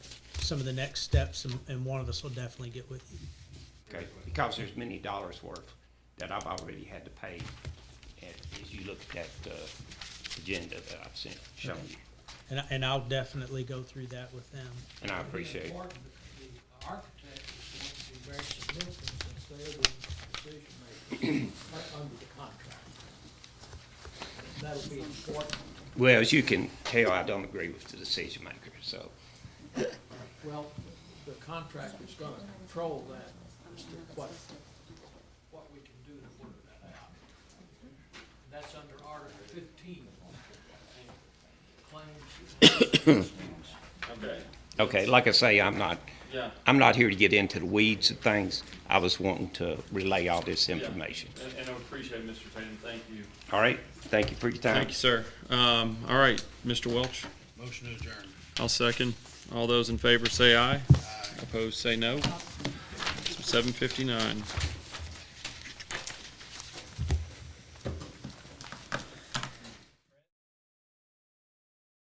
some of the next steps, and, and one of us will definitely get with you. Okay, because there's many dollars worth that I've already had to pay, and as you look at that, uh, agenda that I've sent, shown you, And, I- and I'll definitely go through that with them. and I appreciate it. Important, The architect is going to be very significant since they're the decision makers, right under the contract. That'll be important. Well, as you can tell, I don't agree with the decision maker, so, Well, the contract is gonna control that, as to what, what we can do to work that out. That's under Article fifteen. Claims. and disputes. Okay, okay, like I say, I'm not, yeah. I'm not here to get into the weeds of things. I was wanting to relay all this yeah. information. And, and I appreciate it, Mr. Tatum, thank you. All right, thank you for your time. Thank you, sir. Um, all right, Mr. Welch, Motion to adjourn. I'll second. All those in favor say aye. Opposed, say no. Seven fifty-nine.